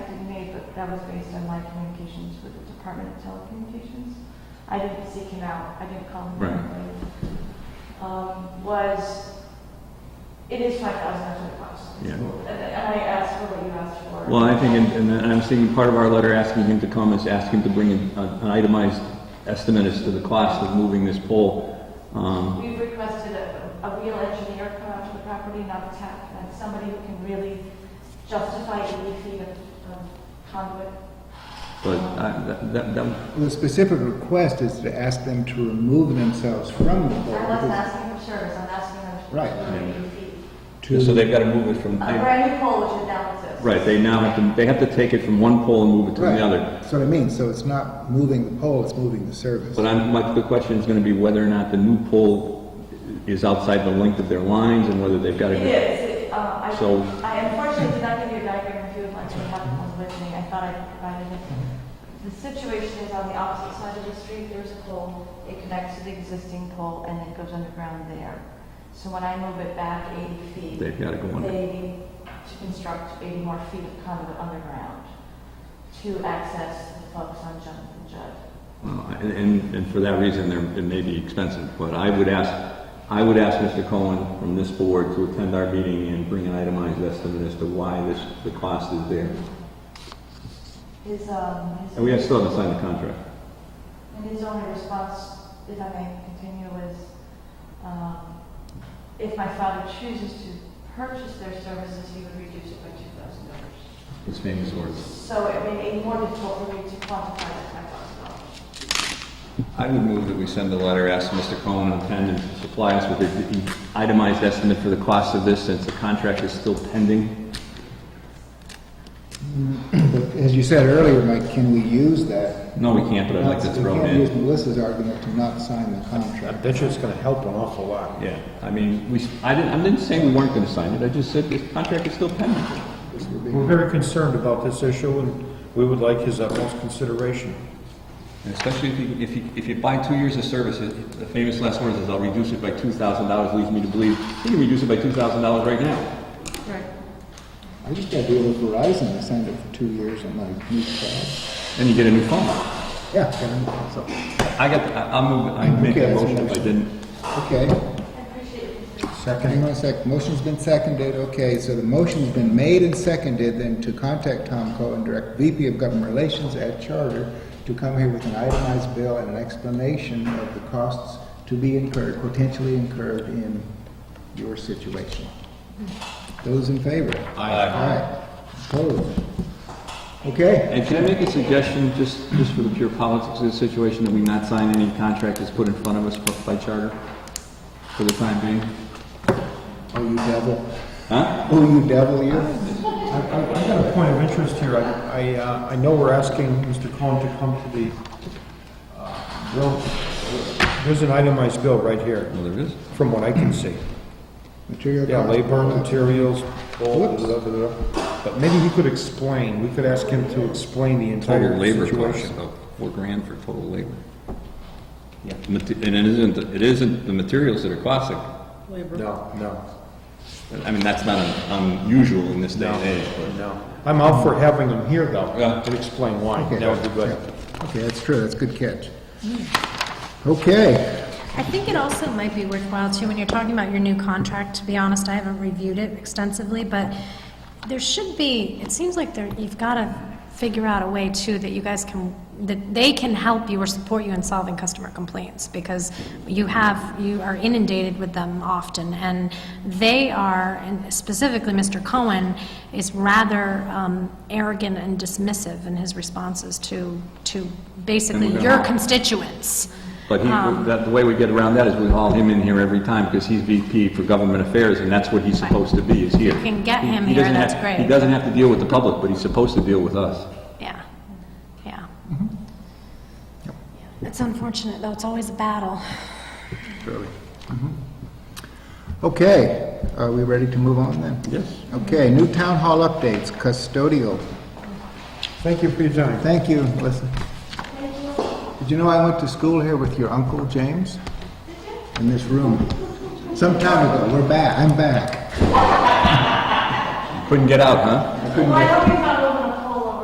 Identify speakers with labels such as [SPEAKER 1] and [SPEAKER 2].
[SPEAKER 1] that was based on my communications with the Department of Telecommunications. I didn't seek him out, I didn't call him
[SPEAKER 2] Right.
[SPEAKER 1] directly. Um, was, it is five thousand, that's what it costs.
[SPEAKER 2] Yeah.
[SPEAKER 1] And I asked for what you asked for.
[SPEAKER 2] Well, I think, and- and I'm seeing part of our letter asking him to come is ask him to bring an an itemized estimate as to the cost of moving this pole. Um,
[SPEAKER 1] We've requested a, a real engineer come out to the property, not a tech, and somebody who can really justify eighty feet of of uh, conduit.
[SPEAKER 2] But I- that, that- that,
[SPEAKER 3] The specific request is to ask them to remove themselves from the
[SPEAKER 1] I
[SPEAKER 3] pole.
[SPEAKER 1] wasn't
[SPEAKER 3] because-
[SPEAKER 1] asking for service, I'm asking them to.
[SPEAKER 3] Right.
[SPEAKER 1] remove 80 feet.
[SPEAKER 3] to-
[SPEAKER 2] so they've got to move it from,
[SPEAKER 1] A brand new pole which is now exists.
[SPEAKER 2] right, they now have to, they have to take it from one pole and move it to
[SPEAKER 3] Right.
[SPEAKER 2] the other.
[SPEAKER 3] That's what I mean, so it's not moving the pole, it's moving the service.
[SPEAKER 2] But I'm, my, the question is gonna be whether or not the new pole is outside the length of their lines and whether they've gotta
[SPEAKER 1] It
[SPEAKER 2] go.
[SPEAKER 1] is, It- uh, I,
[SPEAKER 2] So-
[SPEAKER 1] I unfortunately did not give you a diagram if you would like to have one with me, I thought I provided it. The situation is on the opposite side of the street, there's a pole, it connects to the existing pole and it goes underground there. So when I move it back eighty feet.
[SPEAKER 2] They've gotta go under.
[SPEAKER 1] They need to construct 80 more feet of conduit underground to access the folks on Jonathan Judd.
[SPEAKER 2] Uh, And, and, and for that reason, they're, it may be expensive, but I would ask, I would ask Mr. Cohen from this board to attend our meeting and bring an itemized estimate as to why this, the cost is there.
[SPEAKER 1] His, um, his.
[SPEAKER 2] And we have, still haven't signed the contract.
[SPEAKER 1] And his only response, if I may continue, was, um, if my father chooses to purchase their services, he would reduce it by two thousand dollars.
[SPEAKER 2] His famous words.
[SPEAKER 1] So it made it more difficult for me to quantify that five thousand dollars.
[SPEAKER 2] I would move that we send a letter asking Mr. Cohen and Penn to supply us with an itemized estimate for the cost of this since the contract is still pending.
[SPEAKER 3] But As you said earlier, Mike, can we use that?
[SPEAKER 2] No, we can't, but I'd like to
[SPEAKER 3] Not-
[SPEAKER 2] throw
[SPEAKER 3] We
[SPEAKER 2] it in.
[SPEAKER 3] can't use Melissa's argument to not sign the
[SPEAKER 4] I
[SPEAKER 3] contract.
[SPEAKER 4] bet you it's gonna help an awful lot.
[SPEAKER 2] Yeah, I mean, we, I didn't, I didn't say we weren't gonna sign it, I just said this contract is still pending.
[SPEAKER 3] This would be-
[SPEAKER 4] We're very concerned about this issue, and we would like his utmost consideration.
[SPEAKER 2] And especially if you, if you, if you buy two years of service, it- the famous last words is, I'll reduce it by two thousand dollars, leads me to believe, he can reduce it by two thousand dollars right now.
[SPEAKER 1] Right.
[SPEAKER 3] I just got a deal with Verizon, I signed up for two years on my new card.
[SPEAKER 2] And you get a new phone.
[SPEAKER 3] Yeah, and so,
[SPEAKER 2] I got, I- I'll move, I make
[SPEAKER 3] Okay,
[SPEAKER 2] that
[SPEAKER 3] that's
[SPEAKER 2] motion if I
[SPEAKER 3] interesting.
[SPEAKER 2] didn't.
[SPEAKER 3] okay.
[SPEAKER 1] I appreciate it.
[SPEAKER 3] Hang
[SPEAKER 4] Second,
[SPEAKER 3] on a sec, motion's been seconded, okay, so the motion's been made and seconded, then to contact Tom Cohen, Direct VP of Government Relations at Charter, to come here with an itemized bill and an explanation of the costs to be incurred, potentially incurred in your situation. Those in favor? Aye. Opposed? Okay,
[SPEAKER 2] And can I make a suggestion, just, just for the pure politics of the situation, that we not sign any contract that's put in front of us by charter for the time being?
[SPEAKER 3] oh, you devil,
[SPEAKER 2] Huh?
[SPEAKER 3] oh, you devil, you.
[SPEAKER 4] I- I- I've got a point of interest here. I, I, uh, I know we're asking Mr. Cohen to come to the, uh, bill. There's an itemized bill right here,
[SPEAKER 2] Well, there is.
[SPEAKER 4] from what I can see.
[SPEAKER 3] Material
[SPEAKER 4] Yeah,
[SPEAKER 3] cost-
[SPEAKER 4] labor, materials, all,
[SPEAKER 3] Whoops.
[SPEAKER 4] blah, blah, blah. But maybe he could explain, we could ask him to explain the entire
[SPEAKER 2] Total labor cost,
[SPEAKER 4] situation.
[SPEAKER 2] about four grand for total labor.
[SPEAKER 4] Yeah.
[SPEAKER 2] Mate- And it isn't, it isn't the materials that are costing.
[SPEAKER 4] No, no.
[SPEAKER 2] I mean, that's not un- unusual in this day
[SPEAKER 4] No,
[SPEAKER 2] and age, but.
[SPEAKER 4] no. I'm out for having him here, though,
[SPEAKER 2] Yeah.
[SPEAKER 4] and explain why.
[SPEAKER 3] Okay.
[SPEAKER 4] That would be good.
[SPEAKER 3] Yeah. Okay, that's true, that's a good catch. Okay.
[SPEAKER 5] I think it also might be worthwhile too, when you're talking about your new contract, to be honest, I haven't reviewed it extensively, but there should be, it seems like there, you've got to figure out a way too that you guys can, that they can help you or support you in solving customer complaints, because you have, you are inundated with them often, and they are, and specifically Mr. Cohen, is rather um, arrogant and dismissive in his responses to, to basically
[SPEAKER 2] gonna
[SPEAKER 5] your
[SPEAKER 2] have-
[SPEAKER 5] constituents.
[SPEAKER 2] But he,
[SPEAKER 5] Um.
[SPEAKER 2] that, the way we get around that is we haul him in here every time because he's VP for Government Affairs and that's what he's supposed to be, is here.
[SPEAKER 5] You can get
[SPEAKER 2] He-
[SPEAKER 5] him
[SPEAKER 2] he
[SPEAKER 5] here,
[SPEAKER 2] doesn't
[SPEAKER 5] that's
[SPEAKER 2] have-
[SPEAKER 5] great.
[SPEAKER 2] He doesn't have to deal with the public, but he's supposed to deal with us.
[SPEAKER 5] Yeah, yeah. It's unfortunate, though, it's always a battle.
[SPEAKER 3] Okay, are we ready to move on then?
[SPEAKER 2] Yes.
[SPEAKER 3] Okay, new town hall updates, custodial.
[SPEAKER 4] Thank you for your time.
[SPEAKER 3] Thank you, Melissa. Did you know I went to school here with your uncle, James? In this room. Some time ago, we're back, I'm back.
[SPEAKER 2] Couldn't get out, huh?
[SPEAKER 3] I couldn't
[SPEAKER 1] Well, I
[SPEAKER 3] get,
[SPEAKER 1] hope you found